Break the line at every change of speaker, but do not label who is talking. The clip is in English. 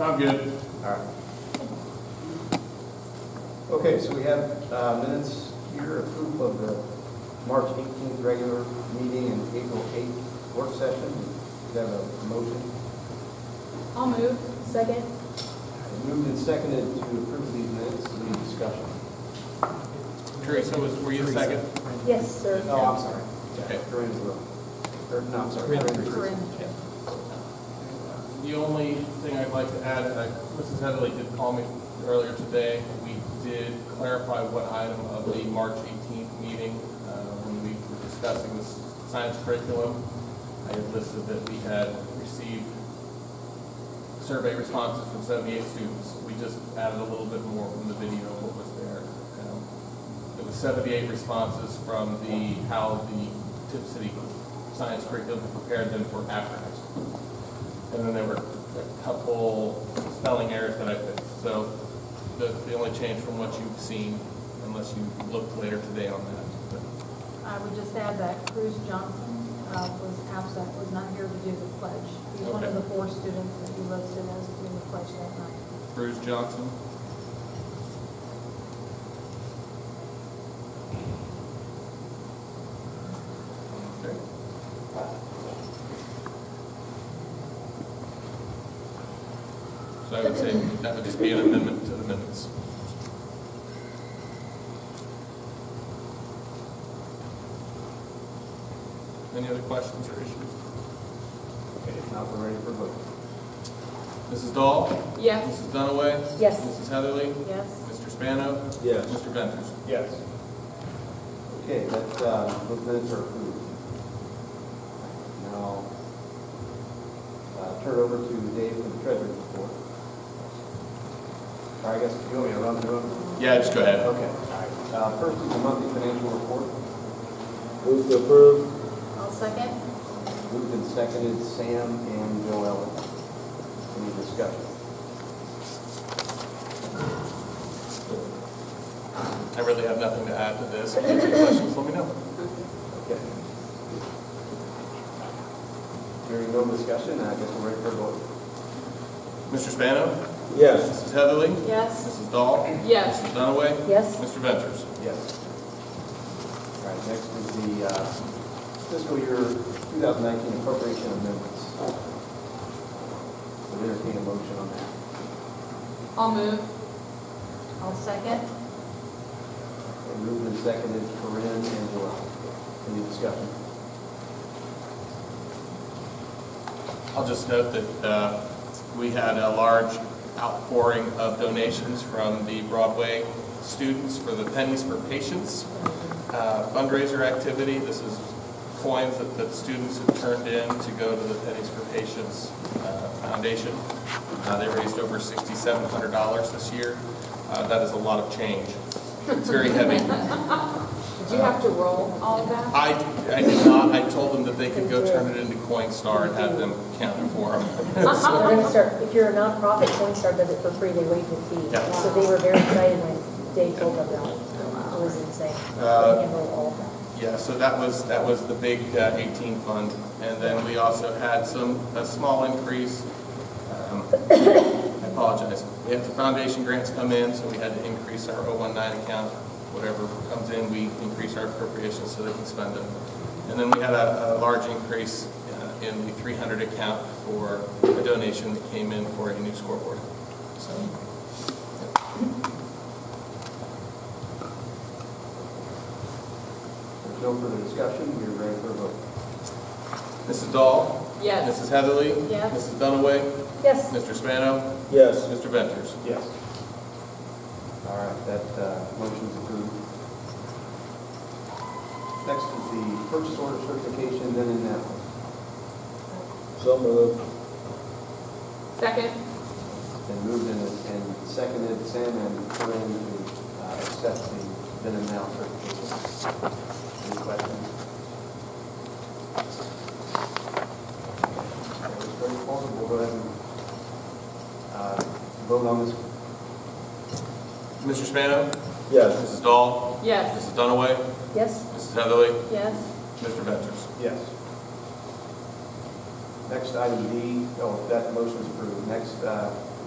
I'm good.
Okay, so we have uh, minutes here, approval of the March 18th regular meeting and April 8th work session. We have a motion.
I'll move. Second.
Moved and seconded to approve these minutes, any discussion?
Teresa, was, were you second?
Yes, sir.
Oh, I'm sorry.
Okay.
Corinne's room. Or, no, I'm sorry. Corinne's room.
The only thing I'd like to add, uh, Mrs. Heatherly did call me earlier today. We did clarify what item of the March 18th meeting, uh, when we were discussing this science curriculum. I had listed that we had received survey responses from 78 students. We just added a little bit more from the video of what was there. Um, It was 78 responses from the, how the Tip City science curriculum prepared them for after high school. And then there were a couple spelling errors that I fixed. So the, the only change from what you've seen, unless you looked later today on that.
I would just add that Cruz Johnson uh, was absent, was not here to do the pledge. He's one of
Okay.
the four students that he listed as doing the pledge that night.
Bruce Johnson? Okay. So I would say that would just be an amendment to the minutes. Any other questions or issues?
Okay, now we're ready for vote.
Mrs. Dahl?
Yes.
Mrs. Dunaway?
Yes.
Mrs. Heatherly?
Yes?
Mr. Spano?
Yes.
Mr. Ventures?
Yes. Okay, that, uh, those minutes are approved. Now, uh, turn it over to Dave for the treasurer's report. Or I guess, you want me to run through them?
Yeah, just go
Okay,
ahead.
all right. Uh, First is the monthly financial report.
Move to approve?
I'll second.
Moved and seconded, Sam and Joel. Any discussion?
I really have nothing to add to this. If you have any questions, let me know.
Okay. Hearing no discussion, I guess we're ready for a vote.
Mr. Spano?
Yes.
Mrs. Heatherly?
Yes?
Mrs. Dahl?
Yes.
Mrs. Dunaway?
Yes.
Mr. Ventures?
Yes. All right, next is the uh, fiscal year 2019 appropriation amendments. Would entertain a motion on that.
I'll move.
I'll second.
Okay, Moved and seconded, Corinne and Joel. Any discussion?
I'll just note that uh, we had a large outpouring of donations from the Broadway students for the Pennies for Patients uh, fundraiser activity. This is coins that the students have turned in to go to the Pennies for Patients uh, Foundation. Uh, They raised over $6,700 this year. Uh, That is a lot of change. It's very heavy.
Did you have to roll all of that?
I, I did not, I told them that they could go turn it into Coinstar and have them count it for them.
So We're gonna start, if you're a nonprofit, Coinstar does it for free, they waive the fee.
Yeah.
So they were very excited when Dave told them that. It was insane. They
Uh,
handled all of that.
Yeah, so that was, that was the big uh, 18 fund. And then we also had some, a small increase. um, I apologize. We had the foundation grants come in, so we had to increase our 019 account. Whatever comes in, we increase our appropriations so they can spend it. And then we had a, a large increase uh, in the 300 account for a donation that came in for a new scoreboard. So
There's no further discussion, we are ready for a vote.
Mrs. Dahl?
Yes.
Mrs. Heatherly?
Yes.
Mrs. Dunaway?
Yes.
Mr. Spano?
Yes.
Mr. Ventures?
Yes. All right, that uh, motion's approved. Next is the purchase order certification, then and now.
So moved?
Second.
Then moved and and seconded, Sam and Corinne to uh, accept the then and now certification. Any questions? It's very formal, we'll go ahead and uh, vote on this.
Mr. Spano?
Yes.
Mrs. Dahl?
Yes.
Mrs. Dunaway?
Yes?
Mrs. Heatherly?
Yes?
Mr. Ventures?
Yes. Next, item D, oh, that motion's approved. Next, uh,